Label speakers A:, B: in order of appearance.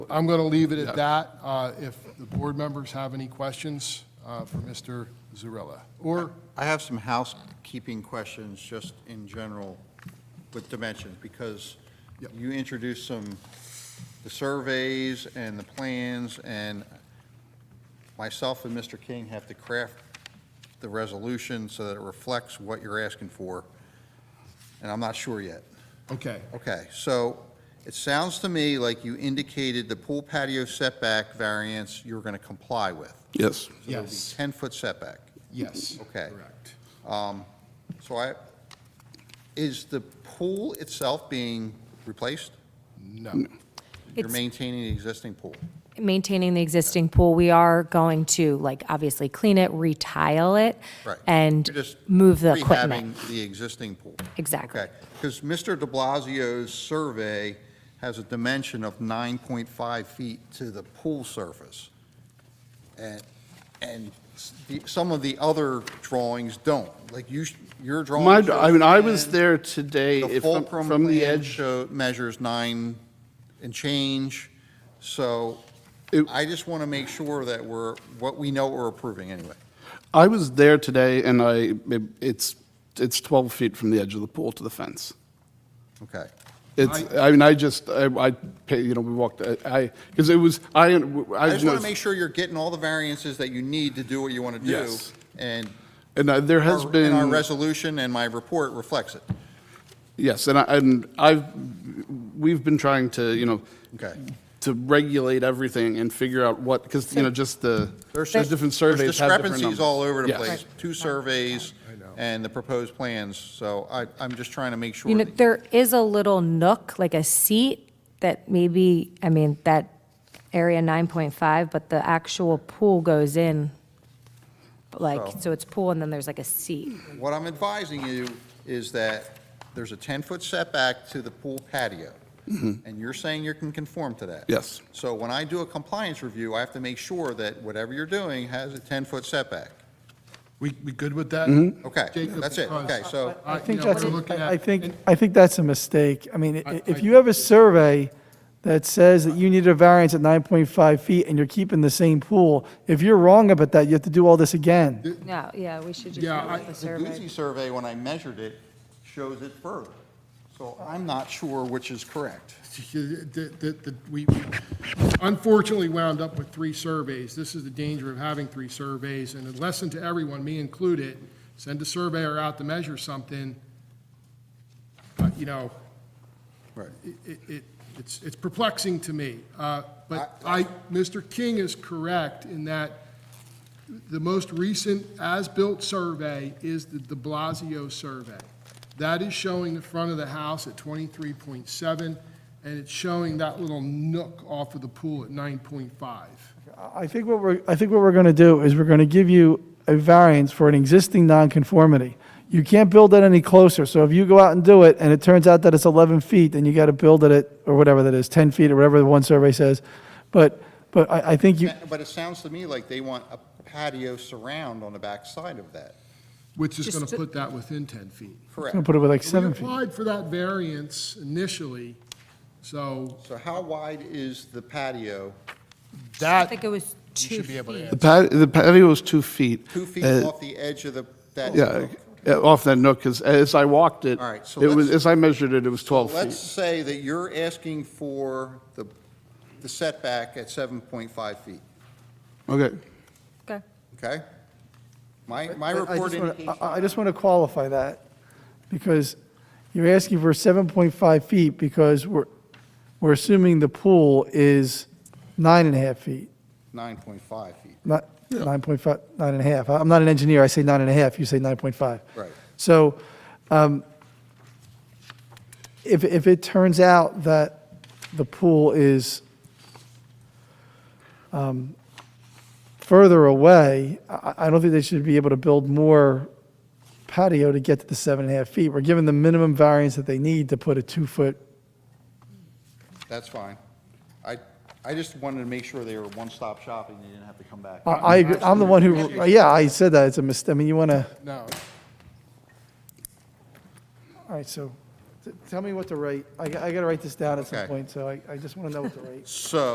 A: I'm going to leave it at that. Uh, If the board members have any questions uh, for Mr. Zurella, or,
B: I have some housekeeping questions, just in general, with dimensions, because you introduced some, the surveys and the plans, and myself and Mr. King have to craft the resolution so that it reflects what you're asking for, and I'm not sure yet.
A: okay,
B: Okay, so it sounds to me like you indicated the pool patio setback variance you were going to comply with.
C: Yes.
A: yes,
B: 10-foot setback.
A: yes.
B: Okay.
A: Correct.
B: So I, is the pool itself being replaced?
A: No.
B: You're
D: It's-
B: maintaining the existing pool?
D: Maintaining the existing pool, we are going to, like, obviously clean it, retile it,
B: Right.
D: and
B: You're just
D: move the equipment.
B: rehabbing the existing pool?
D: Exactly.
B: Okay, because Mr. de Blasio's survey has a dimension of 9.5 feet to the pool surface. And, and s- the- some of the other drawings don't, like you, sh- your drawing.
C: My,
B: shows
C: I mean, I was
B: 10.
C: there today,
B: The
C: if, I'm-
B: fulcrum
C: from the
B: plan
C: edge,
B: show measures nine and change, so
C: It-
B: I just want to make sure that we're, what we know we're approving anyway.
C: I was there today, and I, it's, it's 12 feet from the edge of the pool to the fence.
B: Okay.
C: It's, I mean, I just, I, I, pay- you know, we walked, I, because it was, I, I
B: I just want to
C: noticed-
B: make sure you're getting all the variances that you need to do what you want to do.
C: Yes.
B: And
C: and uh, there has
B: our- and our
C: been,
B: resolution and my report reflects it.
C: yes, and I, and I've, we've been trying to, you know,
B: Okay.
C: to regulate everything and figure out what, because, you know, just the, the
B: There's just-
C: different
B: there's
C: surveys have different numbers.
B: Discrepancies all over the
C: Yes.
B: place, two surveys and the proposed plans, so I, I'm just trying to make sure.
D: You know,
B: that-
D: there is a little nook, like a seat, that maybe, I mean, that area 9.5, but the actual pool goes in, like, so it's pool, and then there's like a seat.
B: What I'm advising you is that there's a 10-foot setback to the pool patio, and you're saying you can conform to that.
C: Yes.
B: So when I do a compliance review, I have to make sure that whatever you're doing has a 10-foot setback.
A: We, we good with that?
B: Okay,
A: Jacob,
B: Mm-hmm. that's it,
A: because,
B: okay, so,
A: uh,
E: I think
A: you know,
E: that's,
A: we're looking
E: I I
A: at-
E: think, I think that's a mistake. I mean,
A: I-
E: i-
A: I-
E: if you have a survey that says that you need a variance at 9.5 feet and you're keeping the same pool, if you're wrong about that, you have to do all this again.
D: No, yeah, we should just
A: Yeah,
D: go
A: I-
D: with the
B: the
D: survey.
B: Guzzi survey, when I measured it, shows it further. So I'm not sure which is correct.
A: that- that- that we unfortunately wound up with three surveys. This is the danger of having three surveys, and a lesson to everyone, me included, send a surveyor out to measure something, uh, you know,
B: Right.
A: it- it, it- it's it's perplexing to me. Uh, But I, Mr. King is correct in that the most recent as-built survey is the de Blasio survey. That is showing the front of the house at 23.7, and it's showing that little nook off of the pool at 9.5.
E: I- I think what we're, I think what we're going to do is we're going to give you a variance for an existing nonconformity. You can't build it any closer, so if you go out and do it and it turns out that it's 11 feet, then you got to build it at, or whatever that is, 10 feet or whatever the one survey says. But, but I, I think you,
B: But it sounds to me like they want a patio surround on the back side of that,
A: Which is going
D: Just
A: to
D: to-
A: put that within 10 feet.
B: correct?
E: I'm going to put it with like
A: We
E: seven feet.
A: applied for that variance initially, so
B: So how wide is the patio?
D: I
A: that,
D: think it was two
A: should be able to
D: feet.
C: The patio, the patio was two feet.
B: Two feet
C: Uh,
B: off the edge of the, that.
C: Yeah, uh, off that nook, because as I walked it,
B: All right, so
C: it was,
B: let's-
C: as I measured it, it was 12
B: Let's
C: feet.
B: say that you're asking for the, the setback at 7.5 feet,
C: Okay.
D: Okay.
B: okay? My, my
E: But I
B: report
E: just wanna-
B: indicates,
E: I I just want to qualify that, because you're asking for 7.5 feet, because we're, we're assuming the pool is nine and a half feet,
B: 9.5 feet,
E: not 9.5, nine and a half. I- I'm not an engineer, I say nine and a half, you say 9.5.
B: right.
E: So um, if, if it turns out that the pool is um, further away, I, I don't think they should be able to build more patio to get to the seven and a half feet. We're giving the minimum variance that they need to put a two-foot,
B: That's fine. I, I just wanted to make sure they were one-stop shopping, they didn't have to come back.
E: I, I agree- I'm the one who, yeah, I said that, it's a mistake. I mean, you want to,
A: no.
E: all right, so t- tell me what to write. I, got to write this down at some
B: Okay.
E: point, so I, I just want to know what to write.
B: So